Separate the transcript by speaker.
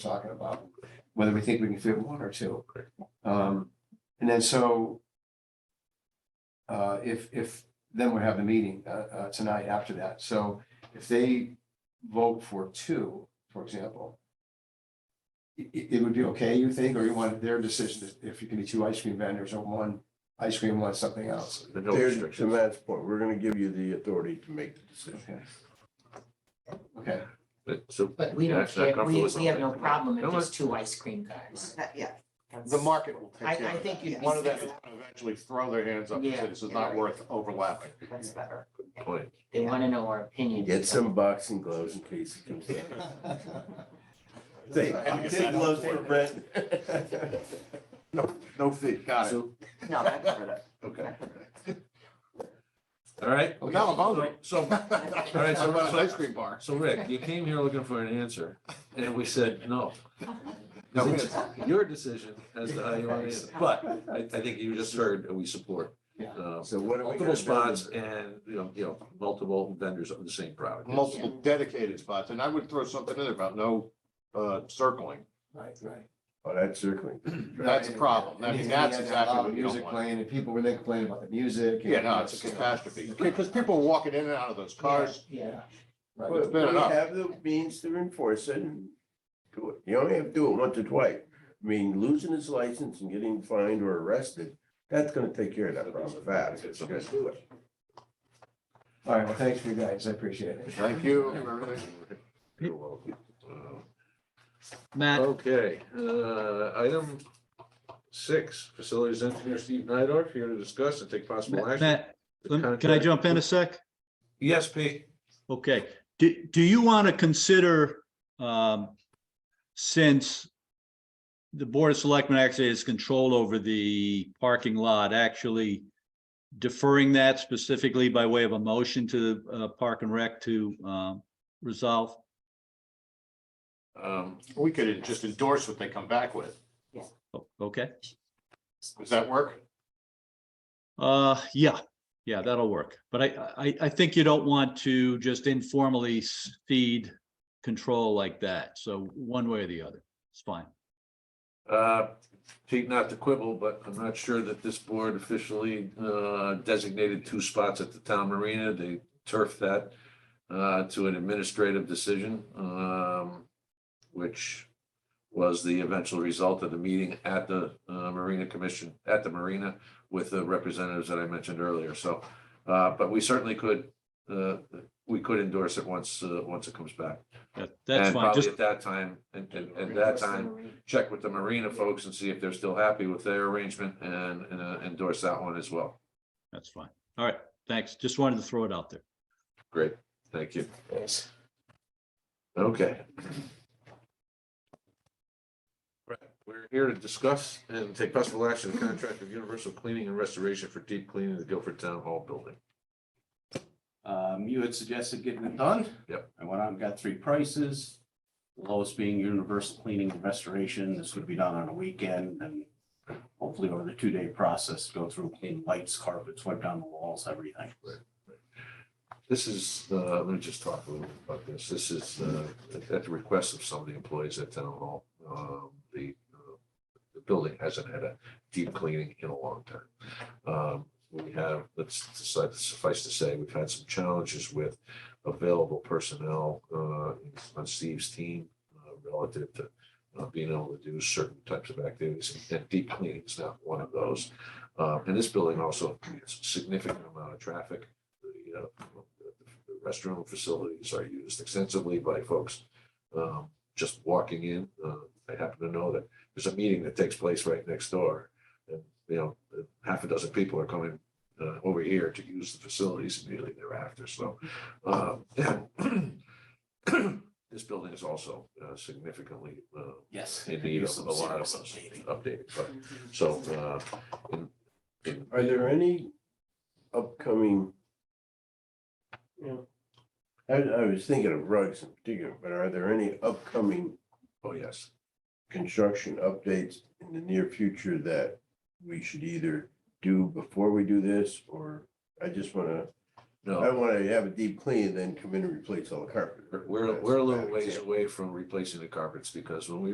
Speaker 1: talking about, whether we think we can fit one or two. Um, and then so. Uh, if, if, then we have the meeting, uh, uh, tonight after that, so if they vote for two, for example. i- i- it would be okay, you think, or you want their decision, if you can be two ice cream vendors or one ice cream, one something else?
Speaker 2: The no
Speaker 3: There's, to
Speaker 2: restrictions.
Speaker 3: Matt's point, we're gonna give you the authority to make the decision.
Speaker 1: Okay. Okay.
Speaker 2: But so.
Speaker 4: But we
Speaker 2: yeah,
Speaker 4: don't
Speaker 2: it's not
Speaker 4: care, we,
Speaker 2: comfortable with
Speaker 4: we have no
Speaker 2: something.
Speaker 4: problem
Speaker 2: No,
Speaker 4: if it's
Speaker 2: it's-
Speaker 4: two ice cream guys.
Speaker 5: That- Yeah,
Speaker 6: The market
Speaker 4: I-
Speaker 6: will take care
Speaker 4: I
Speaker 6: of
Speaker 4: think
Speaker 6: that.
Speaker 4: you'd be
Speaker 6: One of them
Speaker 4: safe.
Speaker 6: is gonna eventually throw their hands up and
Speaker 4: Yeah,
Speaker 6: say, this is
Speaker 4: you're
Speaker 6: not
Speaker 4: right.
Speaker 6: worth overlapping.
Speaker 4: That's better.
Speaker 2: Point.
Speaker 4: They wanna know our opinion.
Speaker 3: Get some boxing gloves in case it comes down. Say,
Speaker 6: I
Speaker 3: get some gloves for Brett.
Speaker 6: No, no fee, got it.
Speaker 2: So,
Speaker 5: no, I remember that.
Speaker 6: Okay.
Speaker 2: all right,
Speaker 1: Okay.
Speaker 6: Now I'm hungry.
Speaker 2: so, all right,
Speaker 6: How
Speaker 2: so,
Speaker 6: about an ice
Speaker 2: so,
Speaker 6: cream bar?
Speaker 2: so Rick, you came here looking for an answer, and we said no.
Speaker 6: No, we-
Speaker 2: It's your decision as to how you want to answer, but I, I think you just heard, and we support.
Speaker 1: Yeah.
Speaker 2: uh,
Speaker 3: So what are we gonna
Speaker 2: Multiple spots
Speaker 3: do?
Speaker 2: and, you know, you know, multiple vendors of the same product.
Speaker 6: Multiple dedicated spots, and I would throw something in there about no, uh, circling.
Speaker 1: Right, right.
Speaker 3: Oh, that's circling.
Speaker 6: That's a problem. I mean, that's exactly what you don't
Speaker 1: Music
Speaker 6: want.
Speaker 1: playing, and people were then complaining about the music. and-
Speaker 6: Yeah, no, it's a catastrophe, because people are walking in and out of those cars.
Speaker 4: Yeah,
Speaker 1: Right.
Speaker 3: But
Speaker 6: It's
Speaker 3: we
Speaker 6: been enough.
Speaker 3: have the means to enforce it and do it. You only have to do it once or twice. I mean, losing his license and getting fined or arrested, that's gonna take care of that problem fast. It's gonna do it.
Speaker 1: All right, well, thanks for you guys, I appreciate it.
Speaker 6: Thank you for everything.
Speaker 2: You're welcome. Uh,
Speaker 7: Matt,
Speaker 2: Okay, uh, item six, facilities engineer Steve Nidorf here to discuss and take possible
Speaker 7: Matt,
Speaker 2: action.
Speaker 7: Matt, lem- can I jump in a sec?
Speaker 2: Yes, Pete.
Speaker 7: Okay, do, do you want to consider, um, since the Board of Selectmen actually has control over the parking lot, actually deferring that specifically by way of a motion to, uh, Park and Rec to, um, resolve?
Speaker 2: Um,
Speaker 6: We could just endorse what they come back with.
Speaker 7: O- Okay,
Speaker 6: Does that work?
Speaker 7: uh, yeah, yeah, that'll work. But I, I, I think you don't want to just informally feed control like that. So one way or the other, it's fine.
Speaker 2: uh, Pete, not to quibble, but I'm not sure that this board officially, uh, designated two spots at the town marina. They turfed that, uh, to an administrative decision, um, which was the eventual result of the meeting at the, uh, Marina Commission, at the marina with the representatives that I mentioned earlier. So, uh, but we certainly could, uh, we could endorse it once, uh, once it comes back.
Speaker 7: That- That's
Speaker 2: And
Speaker 7: fine.
Speaker 2: probably
Speaker 7: Just,
Speaker 2: At that time, and, and, at that time, check with the Marina folks and see if they're still happy with their arrangement and and, uh, endorse that one as well.
Speaker 7: that's fine. All right, thanks. Just wanted to throw it out there.
Speaker 2: Great, thank you. Okay. Right, We're here to discuss and take possible action, contract of universal cleaning and restoration for deep cleaning of the Guilford Town Hall building.
Speaker 8: Um, you had suggested getting it done.
Speaker 2: Yep.
Speaker 8: I went out and got three prices. The Lowest being universal cleaning and restoration. This would be done on a weekend and hopefully over the two-day process, go through clean lights, carpets, wipe down the walls, everything.
Speaker 2: This is, uh, let me just talk a little bit about this. This is, uh, at the request of some of the employees at Town Hall. Um, the, uh, the building hasn't had a deep cleaning in a long time. Um, we have, let's decide, suffice to say, we've had some challenges with available personnel, uh, on Steve's team uh, relative to uh, being able to do certain types of activities and- and deep cleaning is not one of those. Uh, and this building also has a significant amount of traffic. The, uh, the restroom facilities are used extensively by folks um, just walking in. Uh, I happen to know that there's a meeting that takes place right next door. And, you know, half a dozen people are coming uh, over here to use the facilities immediately thereafter. So um, this building is also uh, significantly uh,
Speaker 8: Yes.
Speaker 2: in need of a lot of us updated. But so uh, in, in
Speaker 3: Are there any upcoming? you know, I, I was thinking of rugs in particular, but are there any upcoming
Speaker 2: oh yes.
Speaker 3: construction updates in the near future that we should either do before we do this, or I just wanna, I
Speaker 2: No,
Speaker 3: don't wanna have a deep clean and then come in and replace all the carpet.
Speaker 2: we're,
Speaker 3: That's
Speaker 2: we're a little
Speaker 3: bad
Speaker 2: ways
Speaker 3: example.
Speaker 2: away from replacing the carpets because when we